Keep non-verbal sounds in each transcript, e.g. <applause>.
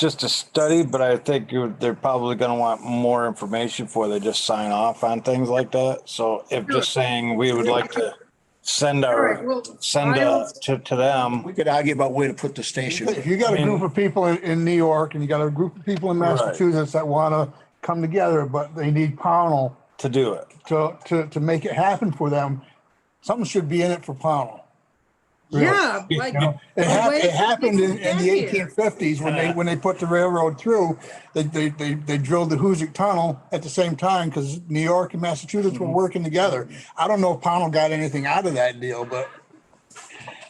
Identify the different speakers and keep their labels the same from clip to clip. Speaker 1: just a study, but I think you- they're probably gonna want more information before they just sign off on things like that. So if just saying we would like to send
Speaker 2: Alright,
Speaker 1: our,
Speaker 2: well,
Speaker 1: send
Speaker 2: I'll-
Speaker 1: a, to, to them.
Speaker 3: We could argue about where to put the station.
Speaker 4: If you got a group of people in, in New York and you got a group of people in
Speaker 1: Right.
Speaker 4: Massachusetts that wanna come together, but they need Pownell
Speaker 1: To do it.
Speaker 4: to, to, to make it happen for them, something should be in it for Pownell.
Speaker 2: Yeah,
Speaker 4: You know,
Speaker 2: like,
Speaker 4: It hap-
Speaker 2: Wait,
Speaker 4: it happened in, in the
Speaker 2: get here.
Speaker 4: eighteen fifties when they, when they put the railroad through, they, they, they, they drilled the Hoosic Tunnel at the same time because New York and Massachusetts were working together. I don't know if Pownell got anything out of that deal, but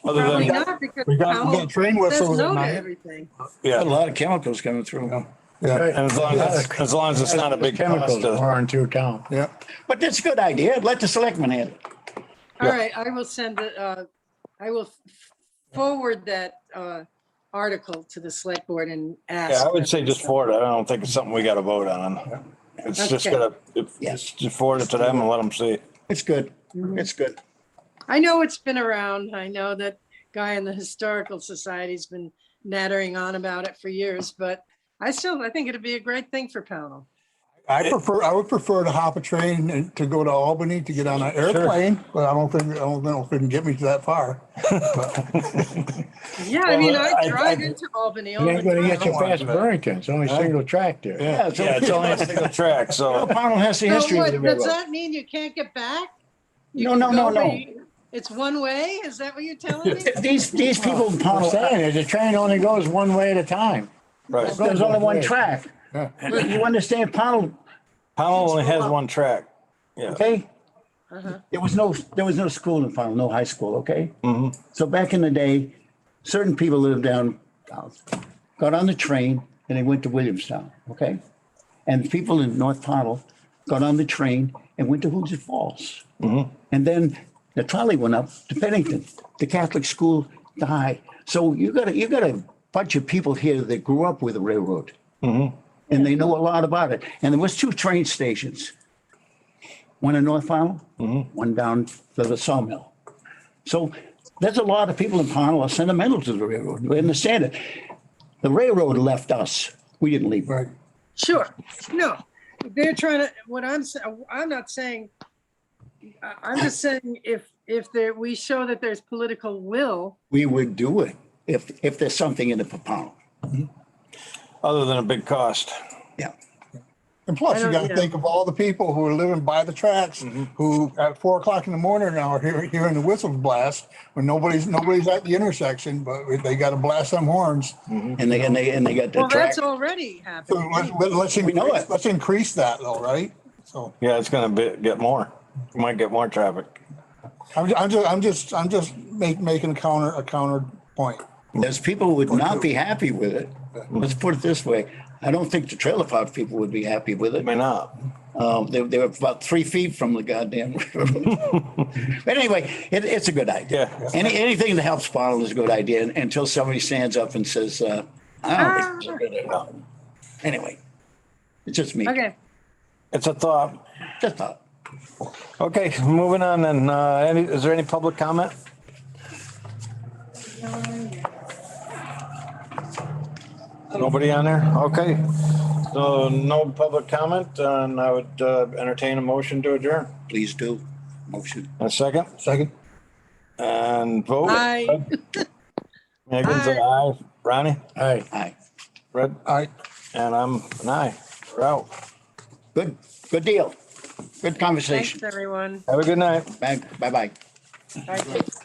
Speaker 1: Other
Speaker 2: probably
Speaker 1: than,
Speaker 2: not because
Speaker 4: we got, we
Speaker 2: Powell
Speaker 4: got train
Speaker 2: says
Speaker 4: whistles at
Speaker 2: no to
Speaker 4: night.
Speaker 2: everything.
Speaker 3: Got
Speaker 1: yeah,
Speaker 3: A lot of chemicals coming through.
Speaker 4: Yeah,
Speaker 1: and as long as, as long as it's not a big cost uh,
Speaker 3: Chemicals
Speaker 1: to,
Speaker 3: are into account.
Speaker 4: yeah.
Speaker 3: But that's a good idea. Let the selectmen handle it.
Speaker 2: All right, I will send it, uh, I will f- forward that, uh, article to the select board and ask.
Speaker 1: yeah, I
Speaker 2: them.
Speaker 1: would say just forward it. I don't think it's something we gotta vote on. It's just
Speaker 2: Okay.
Speaker 1: gonna, if- just forward it to them and let them see.
Speaker 3: It's good.
Speaker 2: Mm-hmm.
Speaker 3: It's good.
Speaker 2: I know it's been around. I know that guy in the historical society's been nattering on about it for years, but I still, I think it'd be a great thing for Pownell.
Speaker 4: I prefer, I would prefer to hop a train and to go to Albany to get on an airplane, but I don't think, I don't know if it can get me to that far.
Speaker 2: Yeah, I mean,
Speaker 1: Well, I-
Speaker 2: I drive
Speaker 1: I-
Speaker 2: into Albany all
Speaker 5: You ain't gonna
Speaker 2: the
Speaker 5: get
Speaker 2: time.
Speaker 5: you past Burrington. It's only single track there.
Speaker 3: Yeah,
Speaker 1: Yeah, it's only
Speaker 3: so
Speaker 1: a
Speaker 3: <laughs>
Speaker 1: single track, so.
Speaker 3: Pownell has the
Speaker 2: So
Speaker 3: history of
Speaker 2: what,
Speaker 3: the
Speaker 2: does
Speaker 3: railroad.
Speaker 2: that mean you can't get back? You
Speaker 3: No,
Speaker 2: can
Speaker 3: no, no,
Speaker 2: go, but
Speaker 3: no.
Speaker 2: you- It's one way? Is that what you're telling me?
Speaker 3: These, these people in
Speaker 5: I'm
Speaker 3: Pownell,
Speaker 5: saying is the train only goes one way at a time.
Speaker 1: <laughs> Right.
Speaker 3: there's only one
Speaker 5: Yeah.
Speaker 3: track.
Speaker 4: Yeah.
Speaker 3: You understand Pownell,
Speaker 1: Powell only has one track. Yeah.
Speaker 3: okay? There was no, there was no school in Pownell, no high school, okay? So back in the day, certain people lived down, south, got on the train and they went to Williamstown, okay? And people in North Pownell got on the train and went to Hoosier Falls. And then the trolley went up to Pennington, the Catholic school, the high. So you got a, you got a bunch of people here that grew up with the railroad. And they know a lot about it. And there was two train stations. One in North Pownell, one down to the sawmill. So there's a lot of people in Pownell are sentimental to the railroad. We understand it. The railroad left us. We didn't leave.
Speaker 4: Right.
Speaker 2: Sure, no, they're trying to, what I'm, sa- I'm not saying, I- I'm just saying if, if there, we show that there's political will,
Speaker 3: We would do it if, if there's something in the Pownell.
Speaker 1: Other than a big cost.
Speaker 3: Yeah.
Speaker 4: And
Speaker 2: I
Speaker 4: plus, you
Speaker 2: don't
Speaker 4: gotta
Speaker 2: know.
Speaker 4: think of all the people who are living by the tracks,
Speaker 3: Mm-hmm.
Speaker 4: who at four o'clock in the morning now are hearing, hearing the whistles blast, when nobody's, nobody's at the intersection, but they gotta blast them horns.
Speaker 1: Mm-hmm.
Speaker 3: And they, and they, and they got the
Speaker 2: well,
Speaker 3: track.
Speaker 2: that's already
Speaker 4: So
Speaker 2: happening.
Speaker 4: let's, let's,
Speaker 3: We know
Speaker 4: increase-
Speaker 3: it.
Speaker 4: let's increase that though, right? So
Speaker 1: Yeah, it's gonna be, get more. You might get more traffic.
Speaker 4: I'm, ju- I'm just, I'm just, I'm just make, making a counter, a counterpoint.
Speaker 3: There's people who would not be happy with it. Let's put it this way. I don't think the trailer park people would be happy with
Speaker 1: It may
Speaker 3: it.
Speaker 1: not.
Speaker 3: Um, they, they were about three feet from the goddamn <laughs> river. But anyway, it, it's a good idea.
Speaker 1: Yeah.
Speaker 3: Any, anything that helps Pownell is a good idea until somebody stands up and says, uh, I don't think. it's a good idea. Anyway, it's just me.
Speaker 2: Okay,
Speaker 1: It's a thought.
Speaker 3: Just thought.
Speaker 1: Okay, moving on then. Uh, any, is there any public comment? Nobody on there? Okay. So no public comment and I would uh, entertain a motion to adjourn.
Speaker 3: Please do. Motion.
Speaker 1: A second
Speaker 4: Second?
Speaker 1: and vote.
Speaker 2: I,
Speaker 1: <laughs> Megan's an aye. Ronnie,
Speaker 5: All right.
Speaker 3: Aye.
Speaker 1: Red,
Speaker 4: I,
Speaker 1: and I'm an aye. We're out.
Speaker 3: Good, good deal. Good
Speaker 2: thanks,
Speaker 3: conversation.
Speaker 2: everyone.
Speaker 1: Have a good night.
Speaker 3: Bye- Bye-bye.
Speaker 2: Bye.